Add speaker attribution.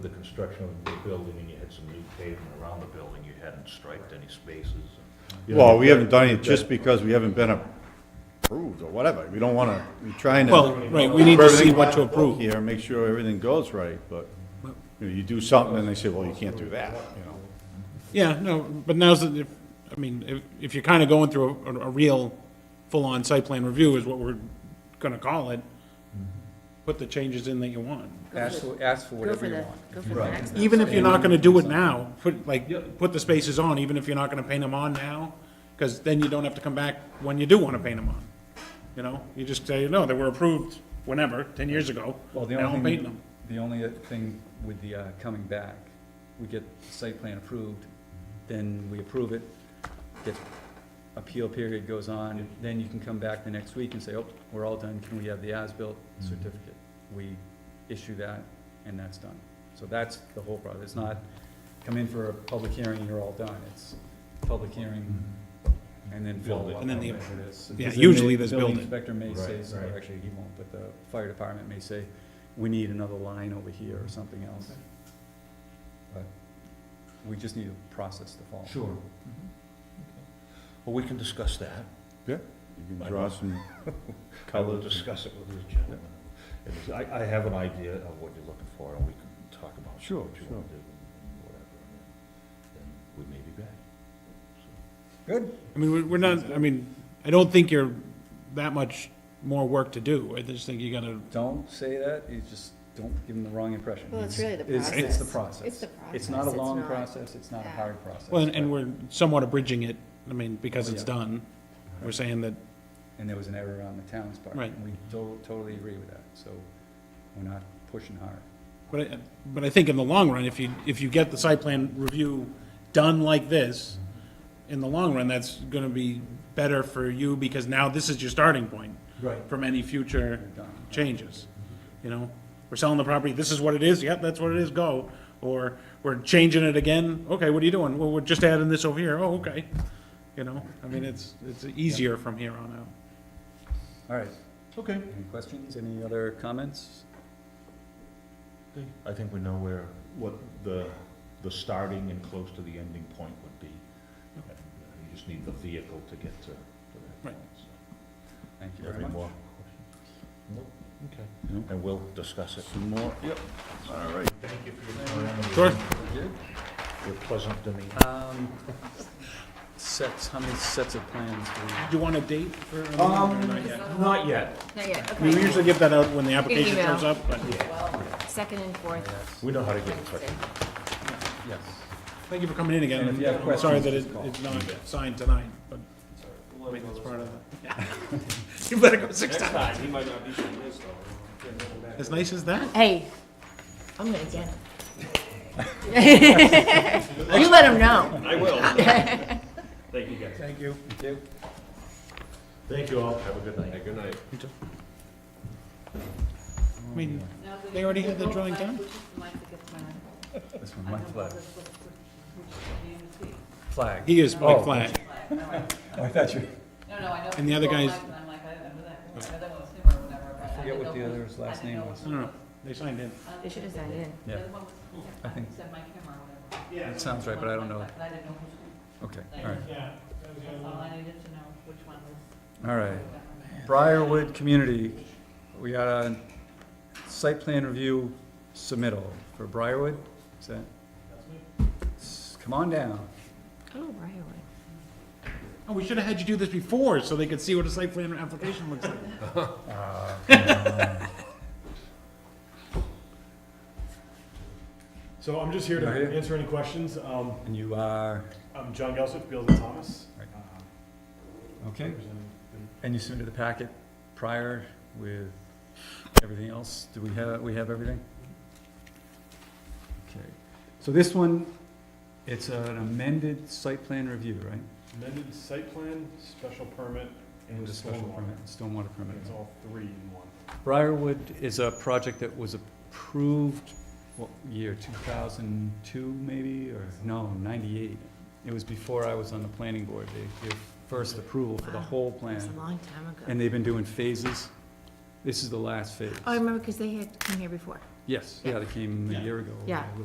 Speaker 1: the construction of the building and you had some new pavement around the building, you hadn't striped any spaces. You know,
Speaker 2: Well, we haven't done it just because we haven't been approved or whatever. We don't want to, we're trying to.
Speaker 3: Well, right, we need to see what to approve.
Speaker 2: Here, make sure everything goes right, but you know, you do something and they say, well, you can't do that, you know?
Speaker 3: Yeah, no, but now's, the- if, I mean, if, if you're kind of going through a, a real, full-on site plan review is what we're gonna call it, put the changes in that you want.
Speaker 4: Ask for, ask for
Speaker 5: Go for
Speaker 4: whatever you
Speaker 5: the,
Speaker 4: want.
Speaker 5: go for the maximum.
Speaker 3: Even if you're not gonna do it now, put, like, put the spaces on, even if you're not gonna paint them on now, because then you don't have to come back when you do want to paint them on. You know, you just say, no, they were approved whenever, ten years ago,
Speaker 4: Well, the
Speaker 3: now I'm
Speaker 4: only
Speaker 3: painting
Speaker 4: thing,
Speaker 3: them.
Speaker 4: the only thing with the, uh, coming back, we get the site plan approved, then we approve it, get, appeal period goes on, then you can come back the next week and say, oh, we're all done, can we have the as-built
Speaker 1: Mm-hmm.
Speaker 4: certificate? We issue that, and that's done. So that's the whole process, it's not come in for a public hearing, you're all done, it's public hearing, and then follow
Speaker 1: Mm-hmm. Build it.
Speaker 4: up.
Speaker 3: And then the-
Speaker 4: on whatever it is.
Speaker 3: yeah,
Speaker 4: Because then
Speaker 3: usually
Speaker 4: the
Speaker 3: there's
Speaker 4: building
Speaker 3: building.
Speaker 4: Inspector may say,
Speaker 1: Right,
Speaker 4: so- or
Speaker 1: right.
Speaker 4: actually he won't, but the fire department may say, we need another line over here or something else. But we just need a process to follow.
Speaker 1: Sure. Mm-hmm. Well, we can discuss that.
Speaker 2: Yeah, you can draw some
Speaker 1: I will
Speaker 2: colors.
Speaker 1: discuss it with the gentleman. It is- I, I have an idea of what you're looking for, and we can talk about what you
Speaker 2: Sure,
Speaker 1: want to do
Speaker 2: sure.
Speaker 1: and whatever. and Then we may be back.
Speaker 3: I mean, we're- we're not, I mean, I don't think you're that much more work to do. I just think you gotta,
Speaker 4: Don't say that, you just, don't give them the wrong impression.
Speaker 5: Well, it's really the
Speaker 4: It's the
Speaker 5: process.
Speaker 4: process.
Speaker 5: It's the
Speaker 4: It's not a
Speaker 5: process, it's
Speaker 4: long
Speaker 5: not-
Speaker 4: process, it's not a
Speaker 5: yeah.
Speaker 4: hard process.
Speaker 3: well, and-
Speaker 4: but-
Speaker 3: and we're somewhat abridging it, I mean, because it's
Speaker 4: Oh, Yeah.
Speaker 3: done. We're saying that,
Speaker 4: And there was an error on the town's part.
Speaker 3: Right.
Speaker 4: And we to- totally agree with that, so we're not pushing hard.
Speaker 3: but I, but I think in the long run, if you, if you get the site plan review done like this, in the long run, that's gonna be better for you, because now this is your starting point.
Speaker 4: Right.
Speaker 3: From any future
Speaker 4: We're done.
Speaker 3: changes, you know? We're selling the property, this is what it is, yep, that's what it is, go. Or we're changing it again, okay, what are you doing? Well, we're just adding this over here, oh, okay. You know, I mean, it's, it's easier from here on out.
Speaker 4: All right,
Speaker 1: Okay.
Speaker 4: any questions, any other comments?
Speaker 1: I think we know where, what the, the starting and close to the ending point would be. And, uh, You just need the vehicle to get to, to that
Speaker 3: Right.
Speaker 1: point. so.
Speaker 4: Thank you very
Speaker 1: Any
Speaker 4: much.
Speaker 1: more questions? No,
Speaker 2: No.
Speaker 1: okay. And we'll discuss it.
Speaker 2: Some more, yep, all right.
Speaker 1: Thank you for your time.
Speaker 3: Sure.
Speaker 4: We're good?
Speaker 1: You're pleasant to me.
Speaker 4: Um, sets, how many sets of plans do we?
Speaker 3: Do you want a date for? a meeting or
Speaker 4: Um,
Speaker 3: not yet?
Speaker 1: Not yet.
Speaker 5: Not yet,
Speaker 3: We
Speaker 5: okay.
Speaker 3: usually give that out when the application
Speaker 5: email.
Speaker 3: comes up, but
Speaker 5: Second and fourth.
Speaker 1: We know how to get in touch.
Speaker 4: Yes.
Speaker 3: thank you for coming in again.
Speaker 4: And if you have
Speaker 3: I'm Sorry
Speaker 4: questions,
Speaker 3: that it-
Speaker 4: just call.
Speaker 3: it's not signed tonight, but I mean, that's part of it. You better go six times.
Speaker 6: He might not be from this though.
Speaker 3: As nice as that?
Speaker 5: Hey, I'm gonna get him. You let him know.
Speaker 6: I will. Thank you guys.
Speaker 3: Thank you.
Speaker 4: Thank you.
Speaker 1: Thank you all. Have a good night.
Speaker 6: Good night.
Speaker 3: I mean, they already had the drawing done.
Speaker 4: This one, my flag. Flag.
Speaker 3: He is Mike Flag.
Speaker 4: I thought you.
Speaker 7: No, no, I know.
Speaker 3: And the other
Speaker 7: people
Speaker 3: guy's-
Speaker 7: like them, I'm like, I remember that. I know that one was him or whatever, but I
Speaker 4: Forget
Speaker 7: didn't
Speaker 4: what
Speaker 7: know
Speaker 4: the
Speaker 7: who-
Speaker 4: other's
Speaker 7: I
Speaker 4: last
Speaker 7: didn't
Speaker 4: name
Speaker 7: know
Speaker 4: was.
Speaker 3: I don't know. They signed in.
Speaker 7: who-
Speaker 5: They should have signed in.
Speaker 7: The
Speaker 4: Yeah,
Speaker 7: other one was,
Speaker 4: I think,
Speaker 7: said Mike Him or whatever.
Speaker 4: that sounds right, but I don't know.
Speaker 7: But I didn't know which one.
Speaker 4: Okay, all right.
Speaker 7: That's all I needed to know, which one was.
Speaker 4: All right. Briarwood Community, we got a site plan review submittal for Briarwood, is that? S- Come on down.
Speaker 5: Oh, right.
Speaker 3: Oh, we should have had you do this before, so they could see what a site plan application looks like.
Speaker 4: Oh,
Speaker 6: So I'm just here to
Speaker 4: You're here?
Speaker 6: answer any questions. Um,
Speaker 4: And you are,
Speaker 6: I'm John Gelsich, Beals and Thomas.
Speaker 4: Right.
Speaker 6: Uh,
Speaker 4: okay,
Speaker 6: representing-
Speaker 4: and you submitted the packet prior with everything else? Do we have, we have everything? Okay, so this one, it's an amended site plan review, right?
Speaker 6: Amended site plan, special permit, and
Speaker 4: And a special
Speaker 6: stormwater.
Speaker 4: permit, stormwater permit.
Speaker 6: It's all three in one.
Speaker 4: Briarwood is a project that was approved, what, year, 2002 maybe, or, no, 98. It was before I was on the planning board, they gave first approval for the
Speaker 5: Wow.
Speaker 4: whole
Speaker 5: It's a
Speaker 4: plan.
Speaker 5: long time ago.
Speaker 4: And they've been doing phases. This is the last phase.
Speaker 5: Oh, I remember, because they had come here before.
Speaker 4: Yes, yeah, they came a year ago.
Speaker 5: Yeah.
Speaker 4: a little